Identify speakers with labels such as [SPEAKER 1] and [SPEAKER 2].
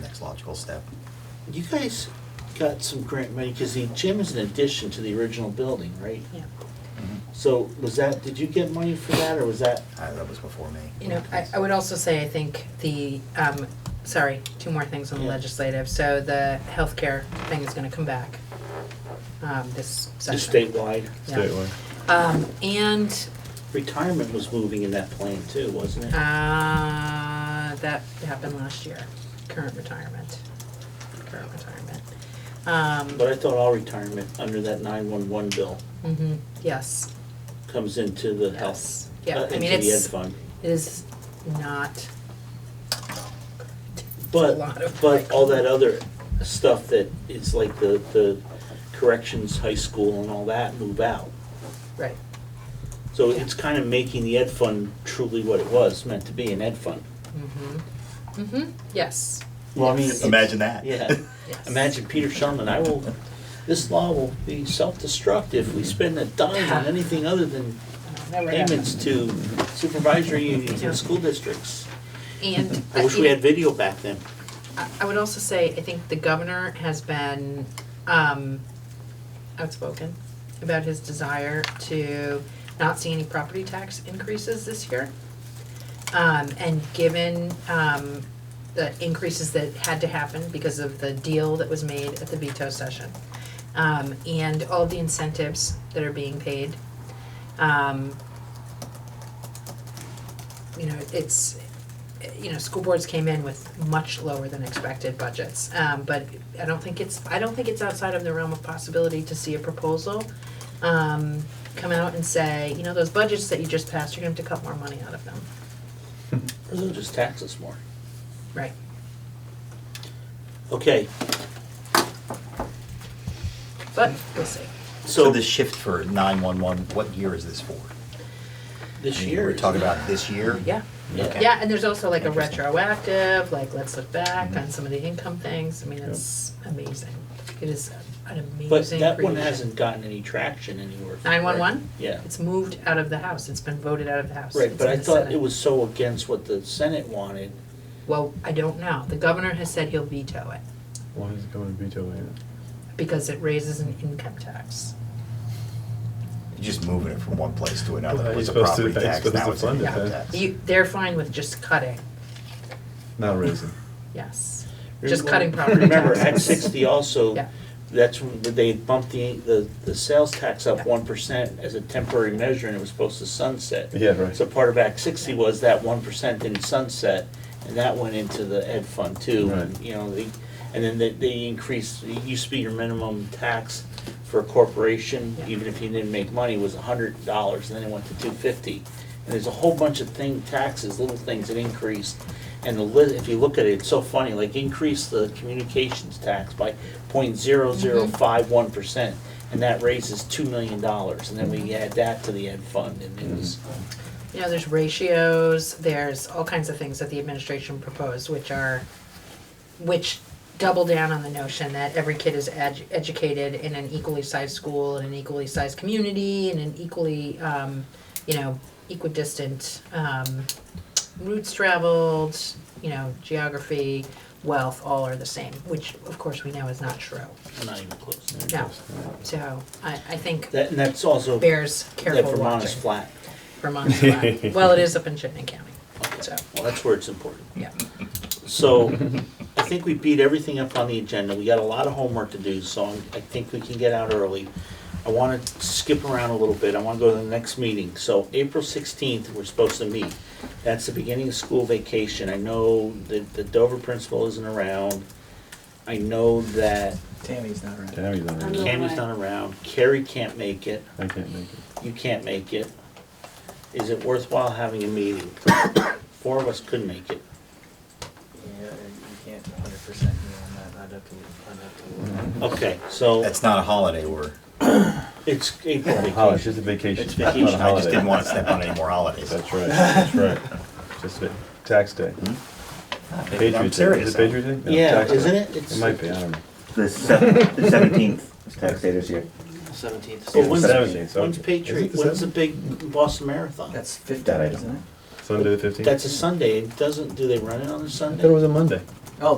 [SPEAKER 1] next logical step.
[SPEAKER 2] You guys got some grant money, because the gym is an addition to the original building, right?
[SPEAKER 3] Yeah,
[SPEAKER 2] So was that, did you get money for that, or was that,
[SPEAKER 1] Uh, That was before me.
[SPEAKER 3] you know, I, I would also say, I think the, um, sorry, two more things on the
[SPEAKER 2] Yeah.
[SPEAKER 3] legislative, so the healthcare thing is gonna come back, um, this
[SPEAKER 2] just
[SPEAKER 3] session.
[SPEAKER 2] statewide?
[SPEAKER 3] Yeah. Um, and,
[SPEAKER 2] Retirement was moving in that plan too, wasn't it?
[SPEAKER 3] uh, that happened last year, current retirement, current retirement. Um,
[SPEAKER 2] But I thought all retirement under that nine-one-one bill
[SPEAKER 3] mhm, yes,
[SPEAKER 2] comes into the health,
[SPEAKER 3] yes,
[SPEAKER 2] uh,
[SPEAKER 3] yeah, I
[SPEAKER 2] into
[SPEAKER 3] mean,
[SPEAKER 2] the ed
[SPEAKER 3] it's,
[SPEAKER 2] fund.
[SPEAKER 3] it is not, lot
[SPEAKER 2] But,
[SPEAKER 3] of-
[SPEAKER 2] but all that other stuff that is like the, the corrections, high school and all that move out.
[SPEAKER 3] right,
[SPEAKER 2] So it's kind of making the ed fund truly what it was, meant to be, an ed fund.
[SPEAKER 3] mhm, mhm, yes,
[SPEAKER 2] Well, I mean,
[SPEAKER 3] Yes.
[SPEAKER 1] Imagine that.
[SPEAKER 2] Yeah,
[SPEAKER 3] yes.
[SPEAKER 2] imagine Peter Shumlin, I will, this law will be self-destruct if we spend a dime on anything other than
[SPEAKER 3] Never happened.
[SPEAKER 2] payments to supervisory unions and school districts.
[SPEAKER 3] And
[SPEAKER 2] I wish we had video back then.
[SPEAKER 3] I- I would also say, I think the governor has been um, outspoken about his desire to not see any property tax increases this year. Um, and given um, the increases that had to happen because of the deal that was made at the veto session, um, and all the incentives that are being paid, um, you know, it's, you know, school boards came in with much lower than expected budgets. Um, but I don't think it's, I don't think it's outside of the realm of possibility to see a proposal, um, come out and say, you know, those budgets that you just passed, you're gonna have to cut more money out of them.
[SPEAKER 2] Or they'll just tax us more.
[SPEAKER 3] Right.
[SPEAKER 2] Okay,
[SPEAKER 3] But we'll see.
[SPEAKER 1] So
[SPEAKER 2] so
[SPEAKER 1] the shift for nine-one-one, what year is this for? I
[SPEAKER 2] this
[SPEAKER 1] mean,
[SPEAKER 2] year.
[SPEAKER 1] We're
[SPEAKER 2] is-
[SPEAKER 1] talking about this year?
[SPEAKER 3] Yeah.
[SPEAKER 1] Okay.
[SPEAKER 3] Yeah, and there's also like a
[SPEAKER 1] Interesting.
[SPEAKER 3] retroactive, like let's look back
[SPEAKER 2] Mm-hmm.
[SPEAKER 1] Mhm.
[SPEAKER 3] on some of the income things. I mean, it's amazing. It is an amazing
[SPEAKER 2] But that one
[SPEAKER 3] creation.
[SPEAKER 2] hasn't gotten any traction anywhere.
[SPEAKER 3] Nine-one-one?
[SPEAKER 2] Yeah.
[SPEAKER 3] It's moved out of the house. It's been voted out of the house.
[SPEAKER 2] Right,
[SPEAKER 3] It's
[SPEAKER 2] but
[SPEAKER 3] in
[SPEAKER 2] I
[SPEAKER 3] the
[SPEAKER 2] thought
[SPEAKER 3] Senate.
[SPEAKER 2] it was so against what the Senate wanted.
[SPEAKER 3] Well, I don't know. The governor has said he'll veto it
[SPEAKER 4] Why is it going to veto it?
[SPEAKER 3] because it raises an income tax.
[SPEAKER 1] You're Just moving it from one place to another.
[SPEAKER 4] Well,
[SPEAKER 1] It
[SPEAKER 4] you're
[SPEAKER 1] was a
[SPEAKER 4] supposed to-
[SPEAKER 1] property
[SPEAKER 4] you're
[SPEAKER 1] tax,
[SPEAKER 4] supposed
[SPEAKER 1] now
[SPEAKER 4] to
[SPEAKER 1] it's an
[SPEAKER 4] fund it,
[SPEAKER 1] income
[SPEAKER 4] huh?
[SPEAKER 1] tax.
[SPEAKER 3] You, they're fine with just cutting,
[SPEAKER 4] Not raising.
[SPEAKER 3] yes. Just cutting property taxes.
[SPEAKER 2] Remember, Act sixty also,
[SPEAKER 3] Yeah.
[SPEAKER 2] that's when they bumped the, the, the sales tax
[SPEAKER 3] Yeah.
[SPEAKER 2] up one percent as a temporary measure and it was supposed to sunset.
[SPEAKER 4] Yeah, right.
[SPEAKER 2] So part of Act sixty was that one percent didn't sunset and that went into the ed fund too. And,
[SPEAKER 4] Right.
[SPEAKER 2] You know, they, and then they, they increased, it used to be your minimum tax for a corporation,
[SPEAKER 3] Yeah.
[SPEAKER 2] even if you didn't make money, was a hundred dollars and then it went to two fifty. And there's a whole bunch of thing, taxes, little things that increased. And the li, if you look at it, it's so funny, like increase the communications tax by point zero zero
[SPEAKER 3] Mm-hmm.
[SPEAKER 2] five one percent. And that raises two million dollars, and then we add that to the ed fund and it was,
[SPEAKER 3] You know, there's ratios, there's all kinds of things that the administration proposed, which are, which double down on the notion that every kid is edu- educated in an equally sized school, in an equally sized community, in an equally, um, you know, equidistant, um, routes traveled, you know, geography, wealth, all are the same, which of course we know is not true.
[SPEAKER 2] not even close.
[SPEAKER 3] No, so I, I think
[SPEAKER 2] That, and that's also, that
[SPEAKER 3] bears careful watching.
[SPEAKER 2] Vermont is flat.
[SPEAKER 3] Vermont's flat. Well, it is up in Chittenden County, so,
[SPEAKER 2] Well, that's where it's important.
[SPEAKER 3] yeah.
[SPEAKER 2] So I think we beat everything up on the agenda. We got a lot of homework to do, so I'm- I think we can get out early. I want to skip around a little bit. I want to go to the next meeting. So April 16th, we're supposed to meet. That's the beginning of school vacation. I know that the Dover principal isn't around. I know that
[SPEAKER 5] Tammy's not around.
[SPEAKER 4] Tammy's not
[SPEAKER 6] I'm
[SPEAKER 4] raising.
[SPEAKER 6] not-
[SPEAKER 2] Cammy's not around. Carrie can't make it.
[SPEAKER 4] I can't make it.
[SPEAKER 2] You can't make it. Is it worthwhile having a meeting? Four of us could make it.
[SPEAKER 5] Yeah, you can't hundred percent be on that, I'd have to, I'd have to. look.
[SPEAKER 2] Okay, so
[SPEAKER 1] That's not a holiday, we're,
[SPEAKER 2] it's April
[SPEAKER 4] Holiday,
[SPEAKER 2] vacation.
[SPEAKER 4] it's just a vacation.
[SPEAKER 2] It's
[SPEAKER 4] not a
[SPEAKER 1] I
[SPEAKER 2] vacation,
[SPEAKER 1] just
[SPEAKER 4] holiday.
[SPEAKER 1] didn't want to step on any more holidays.
[SPEAKER 4] That's right, that's right. Just a tax day. Patriot Day.
[SPEAKER 1] I'm
[SPEAKER 4] Is
[SPEAKER 1] serious.
[SPEAKER 4] it Patriot Day? No,
[SPEAKER 2] Yeah,
[SPEAKER 4] tax day.
[SPEAKER 2] isn't it? It's
[SPEAKER 4] It might be, I don't know.
[SPEAKER 7] The seventeenth is tax day this year.
[SPEAKER 5] Seventeenth.
[SPEAKER 2] Well, when's,
[SPEAKER 4] Seventeenth, so-
[SPEAKER 2] when's
[SPEAKER 4] Is it
[SPEAKER 2] Patriot,
[SPEAKER 4] the
[SPEAKER 2] when's the
[SPEAKER 4] seventh?
[SPEAKER 2] big Boston Marathon?
[SPEAKER 5] That's fifteen,
[SPEAKER 7] That I
[SPEAKER 5] isn't it?
[SPEAKER 4] Sunday the fifteenth?
[SPEAKER 2] That's a Sunday, it doesn't, do they run it on a
[SPEAKER 4] I thought it
[SPEAKER 2] Sunday?
[SPEAKER 4] was a Monday.